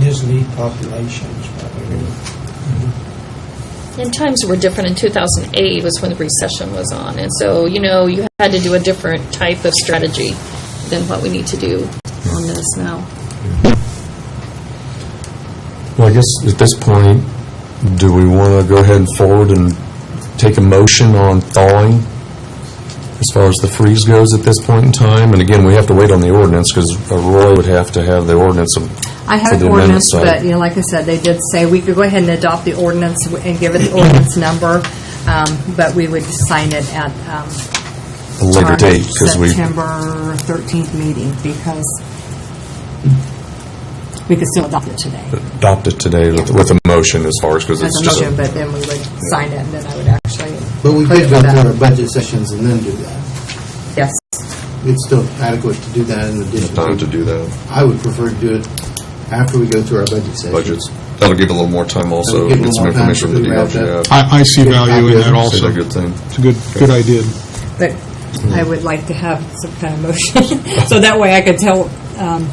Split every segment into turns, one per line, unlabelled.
his lead population is probably.
And times were different. In 2008 was when the recession was on. And so, you know, you had to do a different type of strategy than what we need to do on this now.
Well, I guess at this point, do we want to go ahead and forward and take a motion on thawing as far as the freeze goes at this point in time? And again, we have to wait on the ordinance because Roy would have to have the ordinance of-
I
for
have
the
an
amendment
ordinance,
side.
but, you know, like I said, they did say we could go ahead and adopt the ordinance and give it the ordinance number, um, but we would sign it at um,
A later
our
date because we,
September 13th meeting, because we could still adopt it today
adopt it today with with a motion as far as, because
as
it's
a
just.
motion, but then we would sign it, and then I would actually.
But we
put it
could go
back.
through our budget sessions and then do that.
Yes.
It's still adequate to do that in addition.
Time to do that,
I would prefer to do it after we go through our budget session.
budgets. That'll give a little more time also,
That'll give a
get some
little more time
information from the
to be
DOJ.
wrapped
I, I see value in that
Is
also.
a good thing?
It's a good, good idea.
But I would like to have some kind of motion, so that way I could tell um,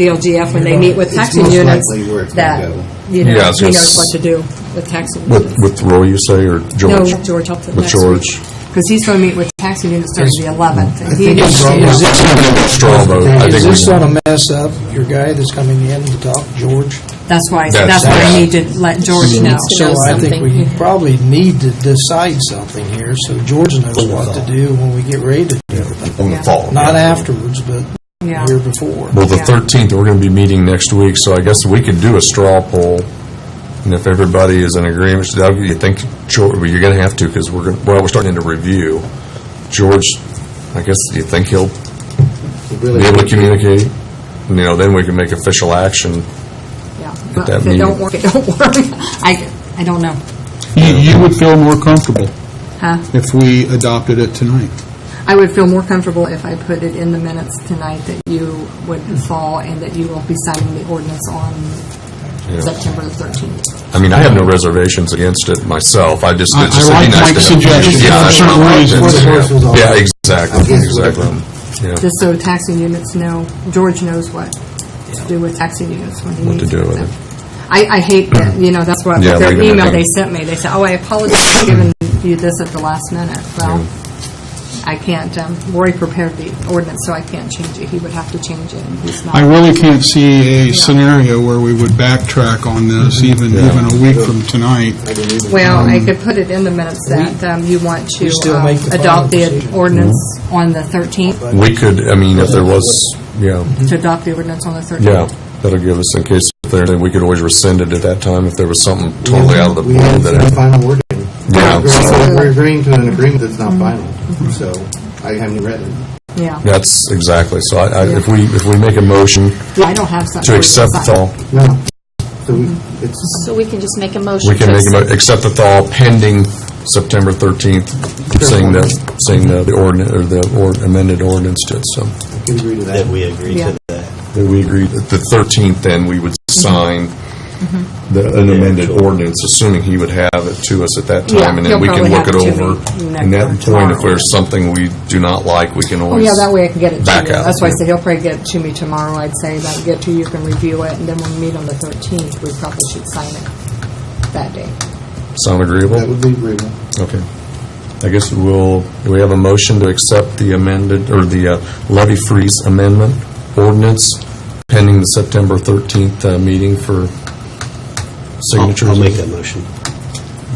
the LGF when they meet with
It's
taxing
most
units
likely where it's gonna
that,
go.
you know,
Yeah, I was
he
gonna
knows
s-
what to do with taxing
With, with
units.
Roy, you say, or
No,
George?
George, up to
With
next week.
George.
Because he's going to meet with taxing units starting the 11th. and he
think
needs
it's
to-
wrong.
Is this-
Straw vote. I
Is
think
this
we-
going to mess up your guy that's coming in to talk, George?
That's why,
That's-
that's why I need to let George know.
needs to
So
know
I think we
something.
probably need to decide something here, so George knows what to do when we get ready to do it.
On the
Yeah.
fall.
Not
yeah.
afterwards, but
Yeah.
here before.
Well, the
Yeah.
13th, we're going to be meeting next week, so I guess we could do a straw poll. And if everybody is in agreement, that you think, George, well, you're going to have to, because we're, gonna- well, we're starting to review. George, I guess, do you think he'll
Really,
be able to communicate? You know, then we can make official action.
Yeah. But
that
If it don't
meeting.
work, it don't work. I, I don't know.
You, you would feel more comfortable
Huh?
if we adopted it tonight.
I would feel more comfortable if I put it in the minutes tonight that you would fall and that you will be signing the ordinance on
Yeah.
September the 13th.
I mean, I have no reservations against it myself, I just,
I-
it's just
I
would be nice
like
to
Mike's
have-
suggestion
Yeah,
for
that's
certain
right.
reasons.
Yeah.
Force was all-
Yeah, exactly,
Against it.
exactly. Yeah.
Just so taxing units know, George knows what to do with taxing units when he
What to
meets
do
with
with
them. I, I hate that, you know, that's what,
Yeah,
their
leave it in
email
there.
they sent me, they said, oh, I apologize for giving you this at the last minute. Well, I can't, um, Rory prepared the ordinance, so I can't change it. He would have to change it, and he's not.
I really can't see a scenario where we would backtrack on this, even, even a week from tonight.
Well, I could put it in the minutes that um, you want to
we still
um,
make the final
adopt the
decision.
ordinance on the 13th,
We could, I mean, if there was, yeah.
to adopt the ordinance on the 13th.
Yeah, that'll give us, in case if there, then we could always rescind it at that time if there was something totally out of the
We
blue
haven't seen the
that.
final word.
Yeah, so
We're- We're agreeing to an agreement that's not final, so I haven't read it.
Yeah.
That's exactly, so I, I, if we, if we make a motion
Yeah, I don't have something.
to accept the
sign.
thaw,
No, so we, it's,
So we can just make a motion.
we can
to
make a,
accept-
mo- accept the thaw pending September thirteenth, seeing the, seeing the, the ordinance, or the or- amended ordinance to it, so.
I can agree to
that
that.
we agree
Yeah.
to that.
That we agree, that the thirteenth, then we would
Mm-hmm.
sign the, an amended ordinance, assuming he would have it to us at that
Yeah,
time, and then
he'll
we can
probably
look it
have it to
over.
me next-
And
or
that point,
tomorrow.
if there's something we do not like, we can
Oh,
always.
yeah, that way I can get it to
Back
you.
out,
That's why I
yeah.
said he'll probably get it to me tomorrow, I'd say, that get to you, you can review it, and then when we meet on the 13th, we probably should sign it that day.
Sound
That
agreeable?
would be agreeable.
Okay. I guess we'll, do we have a motion to accept the amended, or the uh, levy freeze amendment ordinance pending the September 13th uh, meeting for signatures.
I'll I'll make that motion.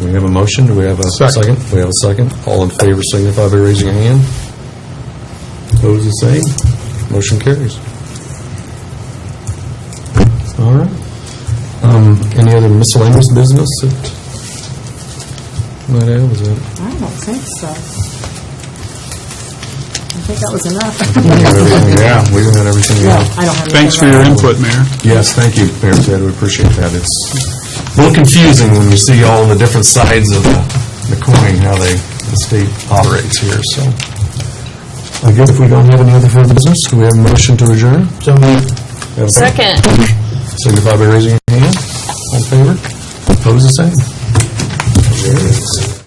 We have a motion, do we have a second? We have a second. All in favor signify by raising a hand. Opposed, the same. Motion carries. All right. Um, Any other miscellaneous business that might have, is that?
I don't think so. I think that was enough.
Yeah, we got everything.
No,
yeah.
I don't have anything
Thanks for your
right now.
input, Mayor.
Yes, thank you, Mayor Ted, we appreciate that. It's a little confusing when you see all the different sides of the the coin, how they, the state operates here, so. I guess if we don't have any other further business, do we have a motion to adjourn? So moved.
Second.
Signify by raising your hand. All in favor? Opposed, the same. There it is.